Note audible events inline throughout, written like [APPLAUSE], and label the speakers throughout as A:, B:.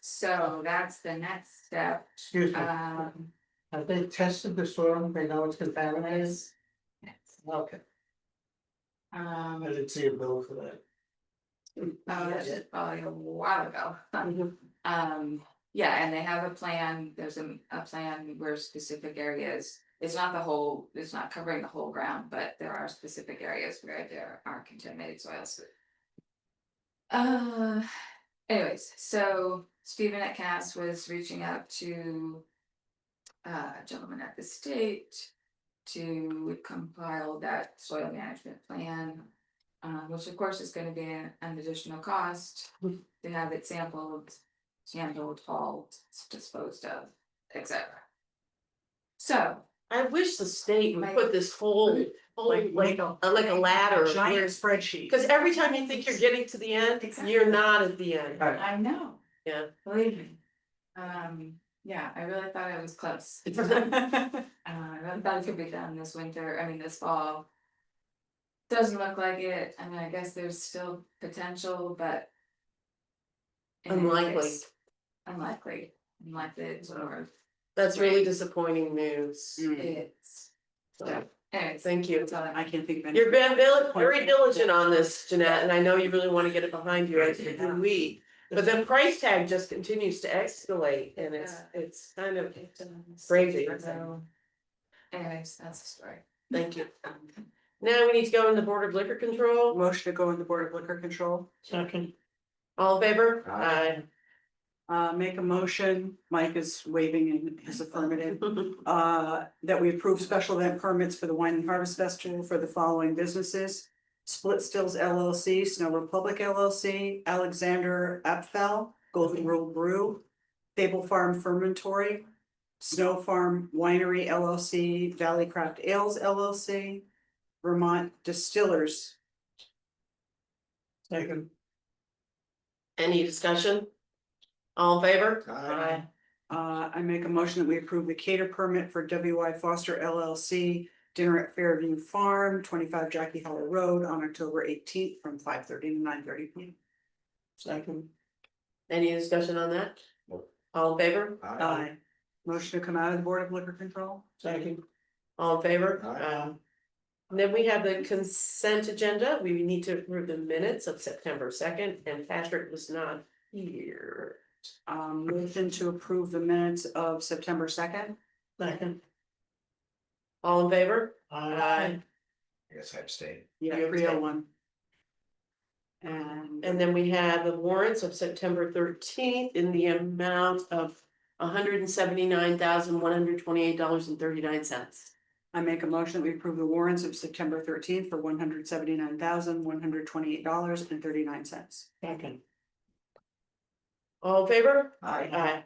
A: So that's the next step,
B: Excuse me,
A: um,
B: have they tested the soil? They know it's contaminated?
A: is.
B: Okay, I
A: Um,
B: didn't see a bill for that.
A: oh, that's just probably a while ago.
B: Mhm.
A: Um, yeah, and they have a plan, there's a, a plan where specific areas, it's not the whole, it's not covering the whole ground, but there are specific areas where there are contaminated soils. Uh, anyways, so Stephen at Cass was reaching out to. Uh, a gentleman at the state to compile that soil management plan. Uh, which of course is gonna be an an additional cost to have it sampled handled, hauled, disposed of, etc. So,
C: I wish the state would
A: Like-
C: put this whole, whole
D: Like,
C: like,
D: a
C: a- like a ladder. of
D: Giant
C: where-
D: spreadsheet.
C: Cause every time you think you're getting to the end,
A: Exactly.
C: you're not at the end.
B: All right,
A: I know.
C: Yeah.
A: Believe me. Um, yeah, I really thought I was close. Uh, I really thought it could be done this winter, I mean, this fall. Doesn't look like it, I mean, I guess there's still potential, but. in any
C: Unlikely.
A: case, Unlikely, unlikely, it's over,
C: That's really disappointing news.
B: Mm. Mm-hmm.
A: Mm. it's,
C: So,
A: anyways.
C: Thank you.
A: that's all I-
D: I can't think of any.
C: You've been dil- very diligent on this, Jeanette, and I know you really wanna get it behind you, as do we. But the price tag just continues to escalate and it's, it's kind of,
A: It, um,
C: Crazy.
A: so- Anyways, that's the story.
C: thank you. Now we need to go in the Board of Liquor Control.
D: Motion to go in the Board of Liquor Control.
B: Second,
C: All in favor?
B: Aye.
D: Uh, make a motion, Mike is waving in his affirmative,
C: [LAUGHS]
D: uh, that we approve special event permits for the Wine and Harvest Festival for the following businesses. Split Stills LLC, Snow Republic LLC, Alexander Apfel, Golden Rule Brew, Fable Farm Fermentory, Snow Farm Winery LLC, Valley Craft Ales LLC, Vermont Distillers
B: second.
C: Any discussion? All in favor?
B: Aye.
D: Uh, I make a motion that we approve the cater permit for W I Foster LLC dinner at Fairview Farm, twenty-five Jackie Hollow Road on October eighteenth from five thirty to nine thirty P M.
B: Second.
C: Any discussion on that?
B: No.
C: All in favor?
D: Aye. Motion to come out of the Board of Liquor Control?
B: Second.
C: All in favor?
B: Aye.
C: Um, and Then we have the consent agenda. We need to approve the minutes of September second and Patrick was not here.
D: Um, motion to approve the minutes of September second?
B: Second.
C: All in favor? Aye.
E: I guess I abstain.
D: Yeah,
C: You
D: three oh
C: abstain.
D: one. And.
C: And then we have the warrants of September thirteenth in the amount of hundred and seventy-nine thousand, one hundred twenty-eight dollars and thirty-nine cents.
D: I make a motion that we approve the warrants of September thirteenth for one hundred seventy-nine thousand, one hundred twenty-eight dollars and thirty-nine cents.
B: Second.
C: All in favor?
B: Aye.
C: Aye.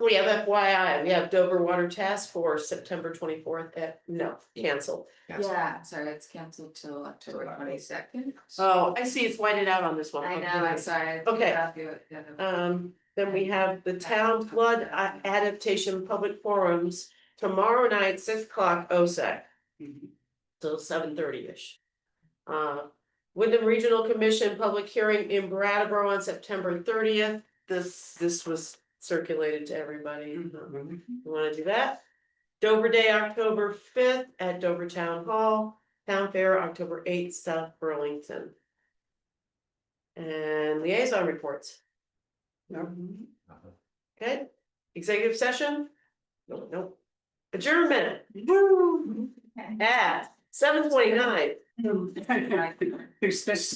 C: We have FYI, we have Dover Water Task Force, September twenty-fourth, at, no, cancel.
E: Yes.
A: Yeah, sorry, it's canceled till October twenty second.
C: Oh, I see, it's whited out on this one.
A: I know, I'm sorry. I
C: Okay.
A: got you, yeah, no.
C: Um, then we have the Town Flood A- Adaptation Public Forums tomorrow night, six o'clock, OSAC, till seven thirty-ish. Uh, Wyndham Regional Commission Public Hearing in Brattleboro on September thirtieth. This, this was circulated to everybody. um, you wanna do that? Dover Day, October fifth at Dover Town Hall, Town Fair, October eighth, South Burlington. And liaison reports,
E: Uh-huh.
C: okay? Executive session? No, no. Adjournment
D: Woo!
A: Okay.
C: at seven twenty-nine.
A: [LAUGHS]
D: Who's this?